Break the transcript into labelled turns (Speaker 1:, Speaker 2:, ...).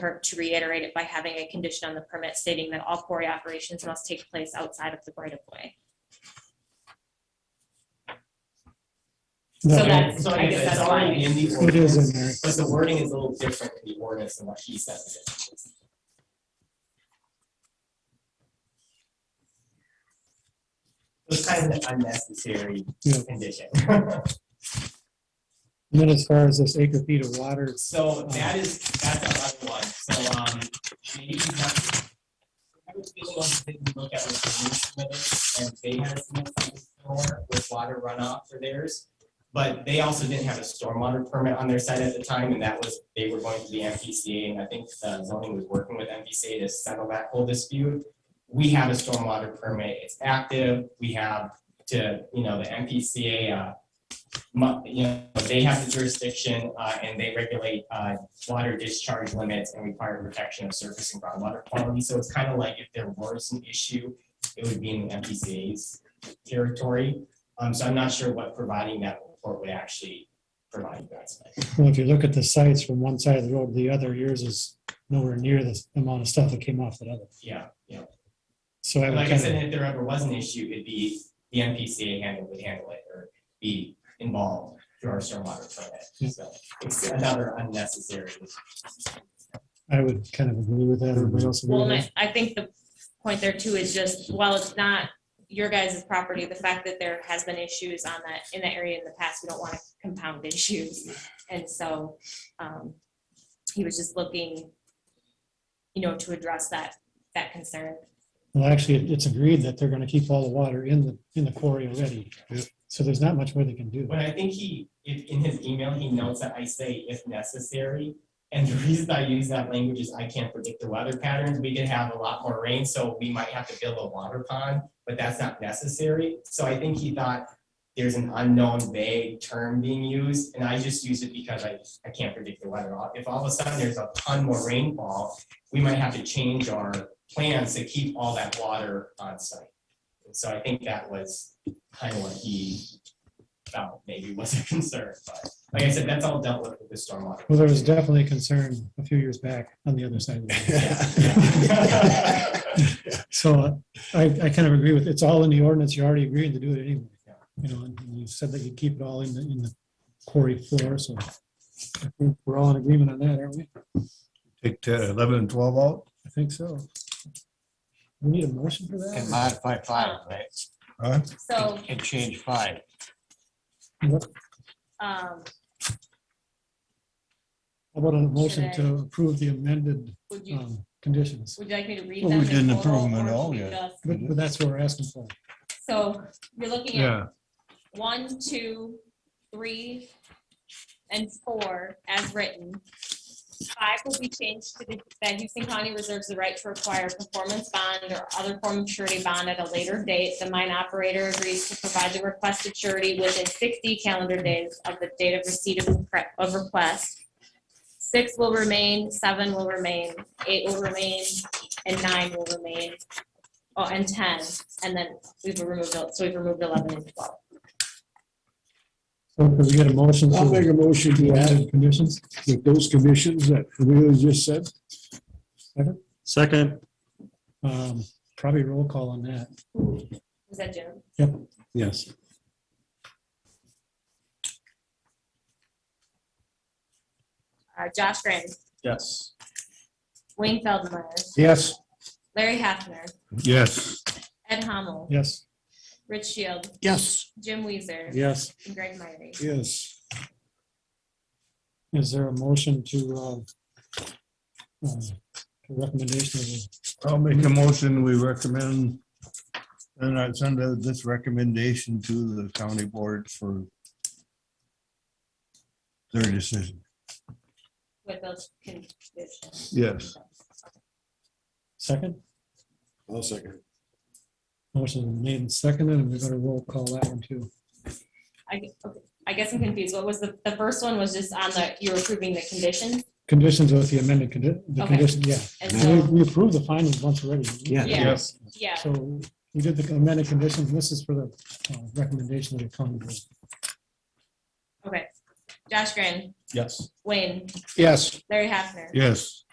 Speaker 1: hurt to reiterate it by having a condition on the permit stating that all quarry operations must take place outside of the right of way. So that's, so I guess that's
Speaker 2: It's already
Speaker 1: fine.
Speaker 2: In the
Speaker 3: It is
Speaker 2: ordinance,
Speaker 3: in there.
Speaker 2: but the wording is a little different in the ordinance than what he says. it is. It's kind of an unnecessary
Speaker 3: Yeah.
Speaker 2: condition.
Speaker 3: And then as far as this acre feet of water,
Speaker 2: So that is, that's a hard one, so, um, maybe he's not. I would feel like they can look at what the new submitted, and they had a submitted stormwater with water runoff for theirs. But they also didn't have a stormwater permit on their side at the time, and that was, they were going to the MPCA, and I think uh, zoning was working with MPCA to settle that whole dispute. We have a stormwater permit, it's active, we have to, you know, the MPCA, uh, mu- you know, they have the jurisdiction, uh, and they regulate, uh, water discharge limits and require protection of surface and groundwater quality. So it's kind of like if there was an issue, it would be in the MPCA's territory. Um, so I'm not sure what providing that report would actually provide you guys. with.
Speaker 3: well, if you look at the sites from one side of the road to the other, yours is nowhere near the amount of stuff that came off that other.
Speaker 2: Yeah, yeah.
Speaker 3: So I
Speaker 2: And
Speaker 3: would
Speaker 2: Like I
Speaker 3: kind
Speaker 2: said,
Speaker 3: of,
Speaker 2: if there ever was an issue, it'd be the MPCA handle, would handle it or be involved through our stormwater permit. So it's another unnecessary.
Speaker 3: I would kind of agree with that. Everybody else
Speaker 4: Mm-hmm.
Speaker 3: agree
Speaker 1: Well,
Speaker 3: with
Speaker 1: and
Speaker 3: that?
Speaker 1: I, I think the point there too is just, while it's not your guys' property, the fact that there has been issues on that, in that area in the past, we don't want to compound issues. And so, um, he was just looking, you know, to address that, that concern.
Speaker 3: Well, actually, it- it's agreed that they're going to keep all the water in the, in the quarry already. So there's not much more they can do.
Speaker 2: But I think he, if, in his email, he notes that I say if necessary. And the reason I use that language is I can't predict the weather patterns. We could have a lot more rain, so we might have to build a water pond, but that's not necessary. So I think he thought there's an unknown vague term being used, and I just use it because I, I can't predict the weather. If all of a sudden there's a ton more rainfall, we might have to change our plans to keep all that water on site. And So I think that was kind of what he felt maybe was a concern, but like I said, that's all dealt with with the stormwater.
Speaker 3: Well, there was definitely concern a few years back on the other side. of the road.
Speaker 2: Yeah.
Speaker 3: So I, I kind of agree with, it's all in the ordinance. You already agreed to do it anyway. You know, and you said that you keep it all in the, in the quarry floor, so I think we're all in agreement on that, aren't we?
Speaker 4: Take uh, eleven and twelve out?
Speaker 3: I think so. We need a motion for
Speaker 5: And
Speaker 3: that?
Speaker 5: modify five, right?
Speaker 4: Huh?
Speaker 1: So,
Speaker 5: And change five.
Speaker 1: um,
Speaker 3: How about a motion
Speaker 1: Should
Speaker 3: to approve the amended
Speaker 1: would you,
Speaker 3: um, conditions?
Speaker 1: would you like me to read
Speaker 4: Well,
Speaker 1: them?
Speaker 4: we
Speaker 1: in
Speaker 4: didn't
Speaker 1: total,
Speaker 4: approve them at
Speaker 1: or should
Speaker 4: all
Speaker 1: we
Speaker 4: yet.
Speaker 1: just-
Speaker 3: But but that's what we're asking for.
Speaker 1: So you're looking at
Speaker 4: Yeah,
Speaker 1: one, two, three, and four as written. Five will be changed to the, that Houston County reserves the right to require a performance bond or other form of surety bond at a later date. The mine operator agrees to provide the requested surety within sixty calendar days of the date of receipt of, the pre- of request. Six will remain, seven will remain, eight will remain, and nine will remain. Oh, and ten, and then we've removed, el- so we've removed eleven and twelve.
Speaker 3: So could we get a motion?
Speaker 6: I'll make a motion
Speaker 3: The
Speaker 6: to add
Speaker 3: added conditions?
Speaker 6: with those conditions that Amelia just said.
Speaker 3: Second. Um, Probably roll call on that.
Speaker 1: Was that Jim?
Speaker 6: Yes.
Speaker 1: Uh, Josh Graham,
Speaker 6: Yes.
Speaker 1: Wayne Feldmeyer,
Speaker 6: Yes.
Speaker 1: Larry Hafner,
Speaker 4: yes,
Speaker 1: Ed Hamel,
Speaker 3: Yes.
Speaker 1: Rich Shield,
Speaker 6: Yes.
Speaker 1: Jim Weezer,
Speaker 3: Yes.
Speaker 1: and Greg Myrie.
Speaker 6: Yes.
Speaker 3: Is there a motion to uh, um, recommendation of the
Speaker 4: I'll make a motion, we recommend. And I send uh, this recommendation to the county board for. Their decision,
Speaker 1: With those conditions.
Speaker 4: yes,
Speaker 3: second?
Speaker 6: I'll second.
Speaker 3: Motion made and seconded, and we're gonna roll call that one too.
Speaker 1: I, gu- okay, I guess I'm confused. What was the, the first one was just on the, you were approving the conditions?
Speaker 3: Conditions with the amended, condi- the
Speaker 1: Okay.
Speaker 3: condition, yeah.
Speaker 1: And
Speaker 3: We
Speaker 1: so,
Speaker 3: we approved the findings once already.
Speaker 5: Yeah.
Speaker 1: Yeah.
Speaker 4: yes,
Speaker 1: yeah,
Speaker 3: So we did the amended conditions, and this is for the uh, recommendation of the county board.
Speaker 1: okay. Josh Graham,
Speaker 6: Yes.
Speaker 1: Wayne,
Speaker 6: Yes.
Speaker 1: Larry Hafner,
Speaker 4: yes,